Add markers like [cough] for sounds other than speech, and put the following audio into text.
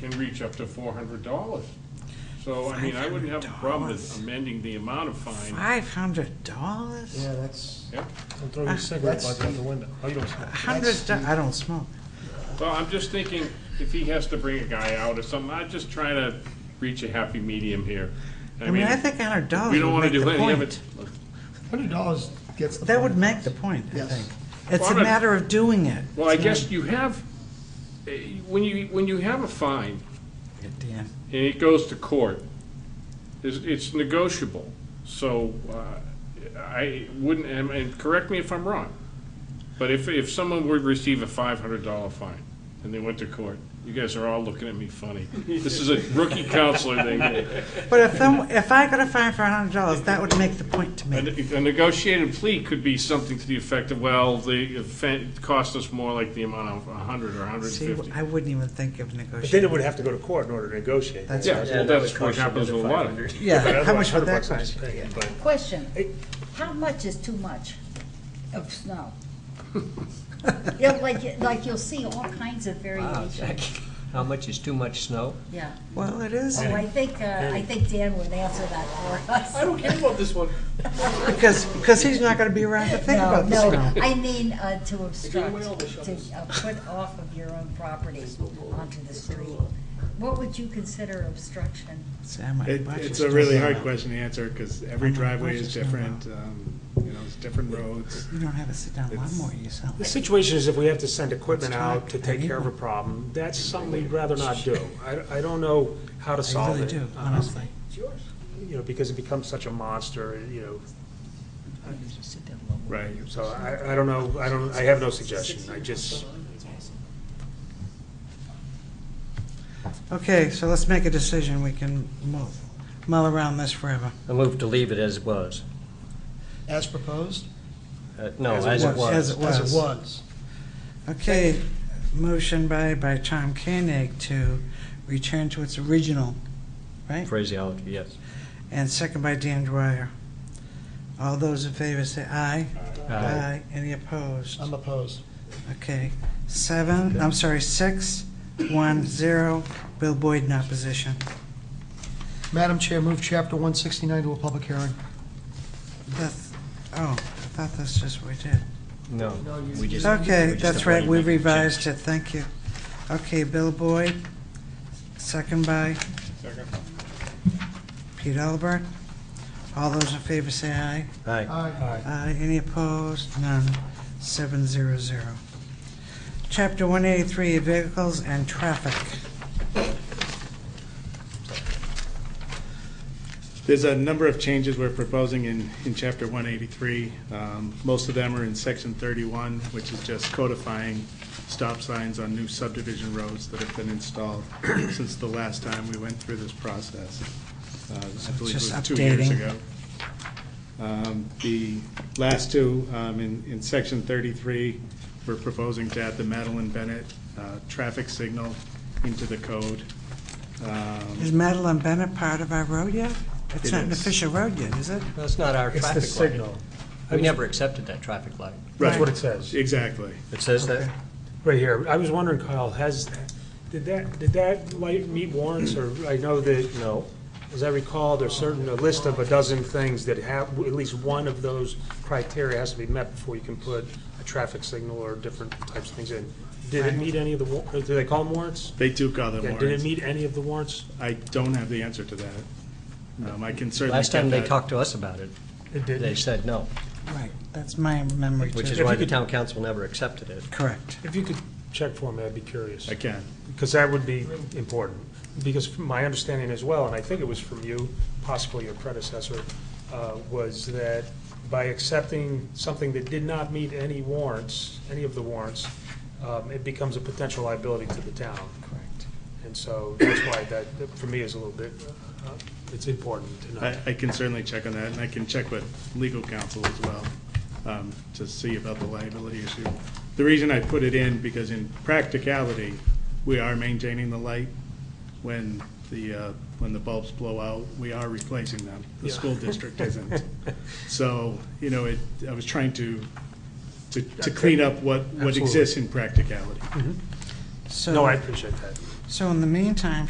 can reach up to four hundred dollars. So, I mean, I wouldn't have a problem with $500. amending the amount of fine. Five hundred dollars? Yeah, that's, Yeah, And Ah, throw your cigarette That's- butt out the window. You don't smoke. Hundred, do- I don't smoke. well, I'm just thinking, if he has to bring a guy out or something, I'm just trying to reach a happy medium here. I mean, I think hundred dollars We don't would wanna make do the any of it. point. Hundred dollars gets the. That would point. make the point, I Yes. think. It's Well, a I'm not- matter of doing it. Well, I guess you have, eh, when you, when you have a fine, God damn. and it goes to court, it's, it's negotiable. So uh, I wouldn't, and- and correct me if I'm wrong, but if, if someone would receive a five hundred dollar fine and they went to court, you guys are all looking at me funny. This is a rookie counselor thing. A But if, some- if I got a fine for hundred dollars, that would make the point to me. ne- A negotiated plea could be something to the effect of, well, the offense cost us more like the amount of a hundred or a hundred See, and fifty. I wouldn't even think of But then it negotiating. would have to go to court in order to negotiate. That's Yeah, well, that's what happens with a lot of. Yeah, how much would Otherwise, that $100 is cost? paid, but- Question, Hey. how much is too much of snow? Yeah, like, like you'll see all kinds of Wow, variation, Jack, [laughs] How much is too much snow? yeah. Well, it is, Oh, I think, uh, I think Dan would answer that for us. I don't care about this one. because, because he's not gonna be around to think No, about this no, now. I mean, uh, to obstruct, to uh, put off of your own property onto the street. What would you consider obstruction? Sam, my It- budget's It's a still really going hard up. question to answer, because every I'm not driveway is budgeting well. different, um, you know, it's different roads. You don't have a sit-down lawnmower yourself. The situation is if we have to send equipment Let's talk. out to take care of a problem, that's something we'd rather not do. I, I don't know how to I solve really it. do, um, honestly. You know, because it becomes such a monster, you know, Right. so I, I don't know, I don't, I have no suggestion. I just, Okay, so let's make a decision. We can mull, mull around this forever. I move to leave it as it was. as proposed? Uh, No, as it As was. it was. As it was. Okay, motion by, by Tom Koenig to return to its original, right? Phraseology, yes. And second by Dan Dwyer. All those in favor say aye. Uh, Aye. Any opposed? I'm opposed. Okay, seven, I'm sorry, six, one, zero, Bill Boyd in opposition. Madam Chair, move Chapter 169 to a public hearing. That's, oh, I thought that's just what we did. No. we just- Okay, we just that's right, appointed we Nick and revised it, thank you. Okay, Bill Boyd, second by Pete Albert. All those in favor say aye. Jim. Aye. Aye. Aye, any opposed? None, seven zero zero. Chapter one eighty-three, vehicles and traffic. There's a number of changes we're proposing in, in chapter one eighty-three. Um, most of them are in section thirty-one, which is just codifying stop signs on new subdivision roads that have been installed [clears throat] since the last time we went through this process. Uh, I believe just it was two years updating. ago. Um, The last two, um, in, in section thirty-three, we're proposing to add the Madeline Bennett, uh, traffic signal into the code. Um, Is Madeline Bennett part of our road yet? It's It not an is. official road yet, is it? That's not our it's the traffic light. signal. We never accepted that traffic light. That's what it says. Exactly. It says that? Okay. Right here. I was wondering, Kyle, has, did that, did that light meet warrants or, I know that. No. As I recall, there's certain, a list of a dozen things that have, at least one of those criteria has to be met before you can put a traffic signal or different types of things in. Did it meet any of the, wa- or do they call them warrants? They do call them Yeah, did it warrants. meet any of the warrants? I don't have the answer to that. Um, I can certainly. Last time get they that. talked to us about it, It they said no, Right, that's my memory too. which is If why you the could- town council never accepted it. Correct. If you could check for me, I'd be curious. I can. Because that would be important, because from my understanding as well, and I think it was from you, possibly your predecessor, uh, was that by accepting something that did not meet any warrants, any of the warrants, um, it becomes a potential liability to the town. Correct. And so that's why that, that for me is a little bit, uh, it's important to know. I, I can certainly check on that, and I can check with legal counsel as well, um, to see about the liability issue. The reason I put it in, because in practicality, we are maintaining the light when the, uh, when the bulbs blow out, we are replacing them. The Yeah. school district [laughs] isn't. So, you know, it, I was trying to, to, to clean up what, what Absolutely. exists in practicality. So, No, I appreciate that. So in the meantime,